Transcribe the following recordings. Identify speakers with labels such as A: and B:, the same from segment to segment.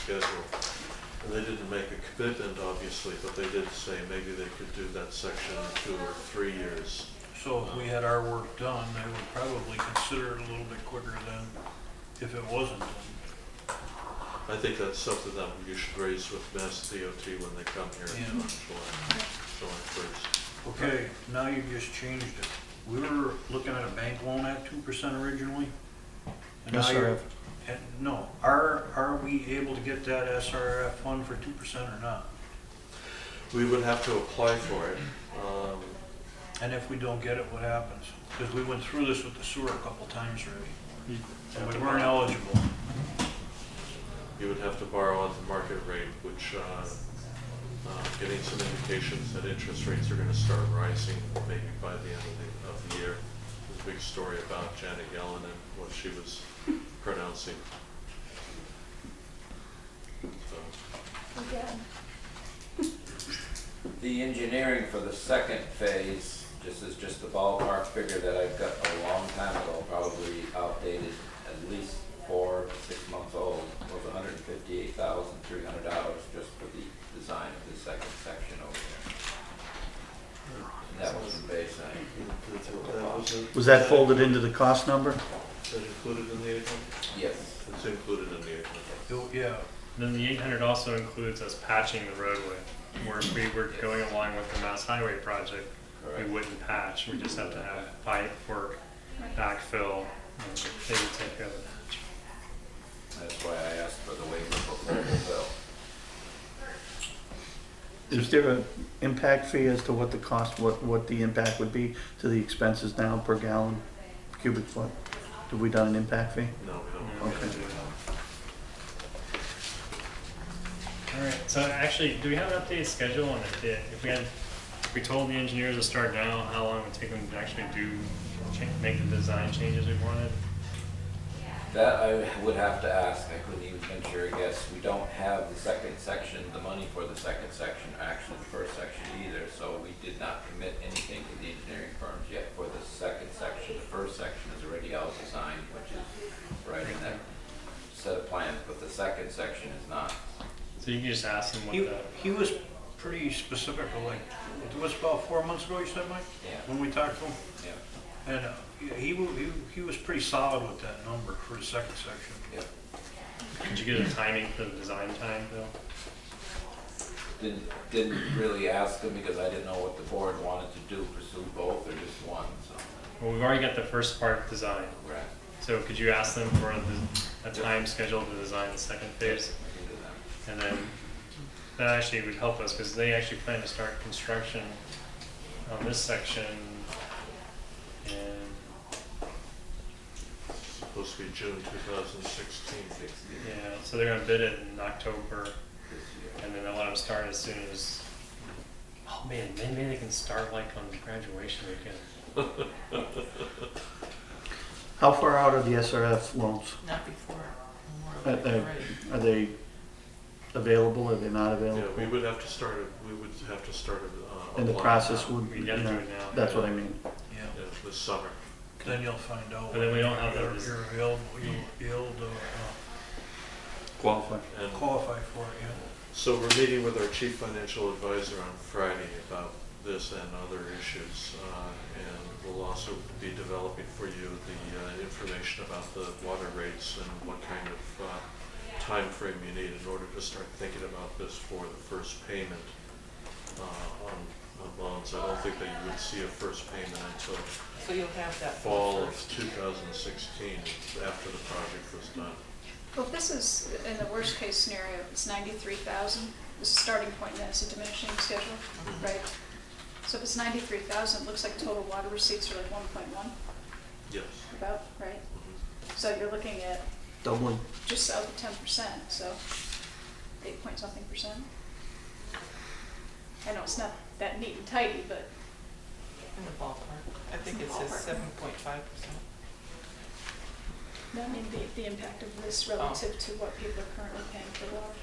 A: schedule. And they didn't make a commitment, obviously, but they did say maybe they could do that section in two or three years.
B: So if we had our work done, they would probably consider it a little bit quicker than if it wasn't done.
A: I think that's something that you should raise with Mass DOT when they come here
B: Yeah.
A: in July, July first.
B: Okay, now you've just changed it. We were looking at a bank loan at two percent originally. and now you're-
C: SRF.
B: and- No, are, are we able to get that SRF fund for two percent or not?
A: We would have to apply for it. Um,
B: And if we don't get it, what happens? Because we went through this with the sewer a couple times already, and we weren't eligible.
A: You would have to borrow at the market rate, which, uh, uh, getting some indications that interest rates are gonna start rising maybe by the end of the, of the year. There's a big story about Janet Yellen and what she was pronouncing. So,
D: The engineering for the second phase, this is just a ballpark figure that I've got a long time ago, probably outdated, at least four, six months old, was hundred and fifty-eight thousand, three hundred dollars just for the design of the second section over there. And that was the baseline.
A: that was in-
C: Was that folded into the cost number?
A: Is that included in the eight hundred?
D: Yes.
A: It's included in the eight hundred.
B: It- Yeah,
E: Then the eight hundred also includes us patching the roadway, where if we were going along with the Mass Highway project, we
D: Correct.
E: wouldn't patch, we just have to have pipe work, backfill, and they would take care of it.
D: That's why I asked for the waiver before the bill.
C: Is there an impact fee as to what the cost, what, what the impact would be to the expenses now per gallon, cubic foot? Have we done an impact fee?
A: No, we don't.
E: Yeah, we can
C: Okay.
E: do that. All right, so actually, do we have an updated schedule on if, the- if we had, if we told the engineers to start now, how long it would take them to actually do, cha- make the design changes we wanted?
D: That I would have to ask, I couldn't even venture a guess. We don't have the second section, the money for the second section, or actually the first section either, so we did not commit anything to the engineering firms yet for the second section. The first section is already out designed, which is right in that set of plans, but the second section is not.
E: So you can just ask them what
B: he,
E: the,
B: he was pretty specific, like, it was about four months ago, you said, Mike?
D: Yeah.
B: When we talked to him?
D: Yeah,
B: And uh, he, wa- he, he was pretty solid with that number for the second section.
D: yeah.
E: did you get a timing for the design time, Bill?
D: Didn't, didn't really ask them because I didn't know what the board wanted to do, pursue both or just one, so.
E: Well, we've already got the first part designed,
D: Right.
E: so could you ask them for the, a time schedule to design the second phase?
D: We can do that.
E: And then that actually would help us because they actually plan to start construction on this section and
A: Supposed to be June two thousand sixteen.
E: yeah, so they're gonna bid it in October
D: This year.
E: and then they'll let them start as soon as. Oh man, then maybe they can start like on graduation weekend.
C: How far out are the SRF loans?
F: Not before
C: Uh,
F: Memorial Day
C: uh,
F: parade.
C: Are they available, are they not
A: Yeah, we
C: available?
A: would have to start, a- we would have to start. a, uh,
C: And the
A: applying
C: process
A: now.
C: would,
E: We
C: you
E: gotta do
C: know,
E: it now.
C: that's what I mean.
B: Yeah.
A: Yeah, this summer.
B: Then you'll find out.
E: But then we don't have
B: whether
E: those-
B: You're ill, you'll, you'll uh,
C: Qualify.
A: And
B: qualify for it, yeah.
A: So we're meeting with our chief financial advisor on Friday about this and other issues. uh, And we'll also be developing for you the uh, information about the water rates and what kind of uh, timeframe you need in order to start thinking about this for the first payment uh, on on loans. I don't think that you would see a first payment until
F: So you'll have that
A: fall
F: for
A: of
F: first.
A: 2016, after the project was done.
G: Well, if this is, in the worst-case scenario, it's 93,000, this is a starting point, then it's a diminishing schedule, right? So if it's 93,000, it looks like total water receipts are like 1.1,
A: Yes. Mm-hmm.
G: about, right? So you're looking at
C: Doubling.
G: just south of 10%, so 8 point something percent. I know it's not that neat and tidy, but
F: In the ballpark. I think it says seven point five percent.
G: I mean, the, the impact of this relative to what people are currently paying for water.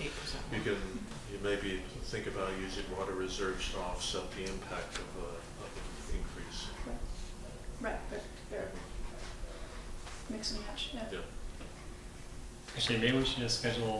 F: Eight percent.
A: You can, you maybe think about using water reserves to offset the impact of, uh, of an increase.
G: Right, Right, but they're mix and match, yeah.
A: Yeah.
E: Actually, maybe we should just schedule